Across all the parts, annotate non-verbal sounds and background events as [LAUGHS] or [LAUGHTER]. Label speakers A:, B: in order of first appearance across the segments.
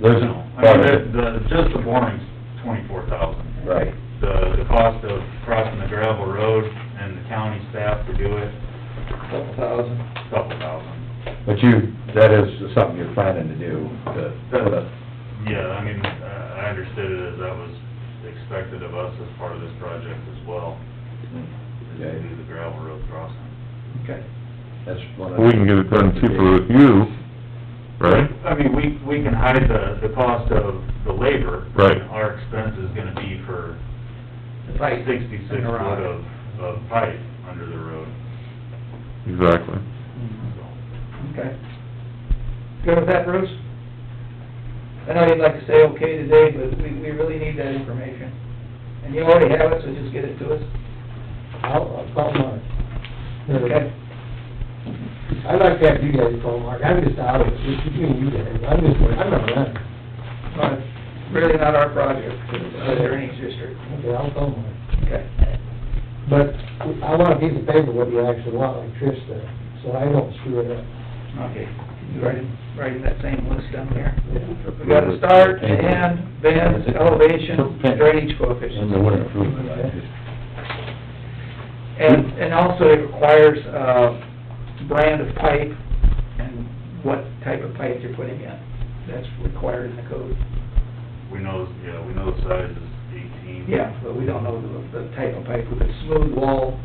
A: There's,
B: I mean, the, the, just the boring's twenty-four thousand.
A: Right.
B: The, the cost of crossing the gravel road and the county staff to do it,
A: Couple thousand.
B: couple thousand.
A: But you, that is something you're planning to do, to put a,
B: Yeah, I mean, uh, I I understood it as that was expected of us as part of this project as well, is to
A: okay,
B: do the gravel road crossing.
A: okay. That's one of.
C: We can get it done cheaper with you, right?
B: I mean, we, we can hide the, the cost of the labor.
C: Right.
B: Our expense is gonna be for
D: The pipe.
B: sixty-six foot
D: and the rock.
B: of, of pipe under the road,
C: Exactly.
B: so.
D: Okay. Good with that, Bruce? I know you'd like to say okay today, but we, we really need that information. And you already have it, so just get it to us.
E: I'll, I'll call Mark.
D: Okay.
E: I'd like to have you guys call Mark, I'm just out of it, it's between you guys, I'm just, I'm not running.
D: Well, it's Really not our project, it's the drainage district.
E: Okay, I'll call Mark.
D: Okay.
E: But I want a piece of paper what you actually want, like Trish said, so I don't screw it up.
D: Okay. You writing, writing that same list down there? We got a start, a end, bend, elevation, drainage
A: And
D: coefficient.
A: the winter improvement, I just,
D: And, and also it requires, uh, brand of pipe and what type of pipe you're putting in. That's required in the code.
B: We know, yeah, we know the size is eighteen.
D: Yeah, but we don't know the, the type of pipe, whether it's smooth wall,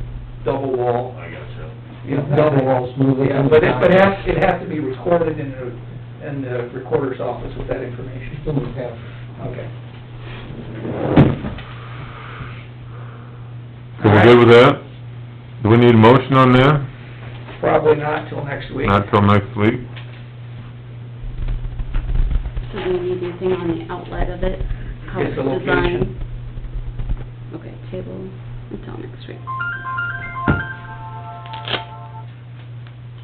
D: double wall,
B: I gotcha.
D: you know, double wall.
E: smoothly.
D: Yeah, but it, but it has, it has to be recorded in the, in the recorder's office with that information.
E: In the past.
D: Okay.
C: So we're good with that? Do we need a motion on that?
D: Probably not till next week.
C: Not till next week?
F: So do we need anything on the outlet of it? How
D: Get
F: it's
D: the location.
F: designed? Okay, table until next week.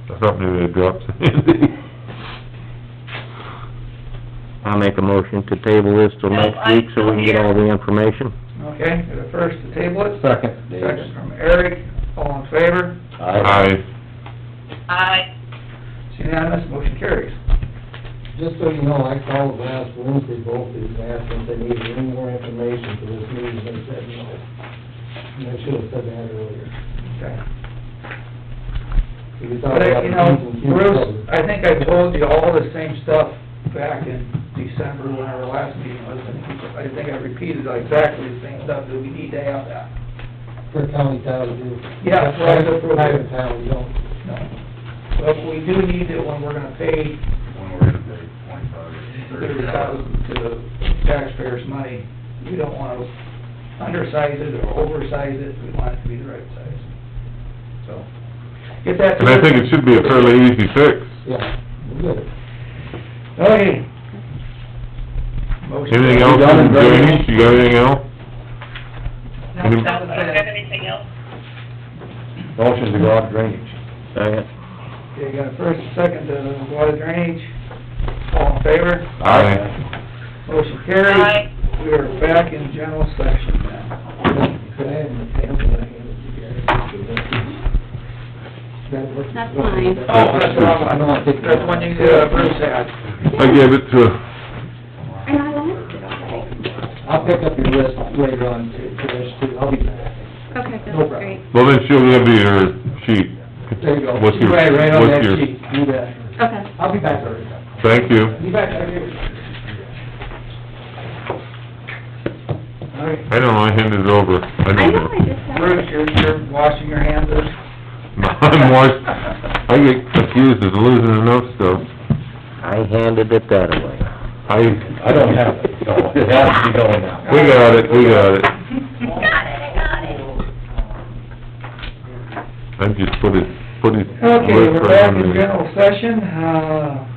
C: I thought maybe it dropped Sandy.
G: [LAUGHS] I'll make a motion to table this till next week, so we can get all the information.
D: Okay, got a first to table it,
A: second,
D: second
A: Dave.
D: from Eric, all in favor,
C: Aye.
H: Aye.
D: it's unanimous, motion carries.
E: Just so you know, I called last Wednesday, both of these, asked if they needed any more information for this meeting, they said no. And I should have said that earlier.
D: Okay.
E: So we thought
D: But, I-
E: about the
D: you know,
E: meeting, you
D: Bruce,
E: covered.
D: I think I told you all the same stuff back in December when our last meeting was, and I think I repeated exactly the same stuff, that we need to have that.
E: For county town to do.
D: Yeah, for us to approve.
E: Private town, we don't.
D: No. But we do need it when we're gonna pay
B: When we're gonna pay twenty-five,
D: thirty
B: thirty
D: thousand
B: thousand.
D: to the taxpayers' money, we don't wanna undersize it or oversize it, we want it to be the right size. So, get that.
C: And I think it should be a fairly easy fix.
E: Yeah, we're good.
D: Okay. Motion.
C: Anything else on drainage? You got anything else?
H: No,
C: Any-
H: that was, I don't have anything else.
A: Motion to go out drainage.
G: Second.
D: Okay, you got a first, a second, to go out of drainage, all in favor,
C: Aye.
D: motion carries.
H: Aye.
D: We are back in general section now.
E: Could I have my pamphlet I handed you guys? That works.
F: That's mine.
D: Oh, that's the wrong one.
E: I know, I think-
D: That's the one you, uh, Bruce had.
C: I gave it to,
F: And I liked it already.
E: I'll pick up your list later on, Trish, too, I'll be back.
F: Okay,
E: No
F: that's
E: problem.
F: great.
C: well, then she'll give you her sheet.
E: There you go.
C: What's your-
E: Right, right on
C: what's
E: that
C: your-
E: sheet, do that.
F: Okay.
E: I'll be back later.
C: Thank you.
E: Be back, I'll be back.
D: All right,
C: I know, I handed it over. I
F: I
C: don't
F: know,
C: know.
F: I just have.
D: Bruce, you're, you're washing your hands of
C: [LAUGHS] I'm washed, I get confused as losing enough stuff.
G: I handed it that away.
C: I,
A: I don't have it, so it has to be going out.
C: We got it, we got it.
H: Got it, I got it.
C: I just put it, put it.
D: Okay, we're back
C: on
D: in
C: the-
D: general session, uh,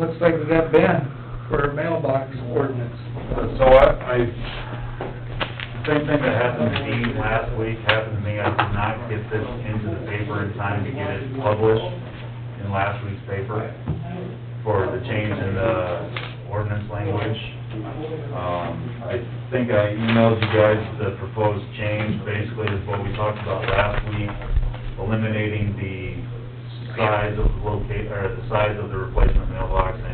D: looks like we got Ben for mailbox ordinance.
B: Uh, So I, I, same thing that happened to Dean last week happened to me. I did not get this into the paper in time to get it published in last week's paper for the change in the ordinance language. Um, I think I emailed you guys the proposed change, basically is what we talked about last week, eliminating the size of locate, or the size of the replacement mailbox and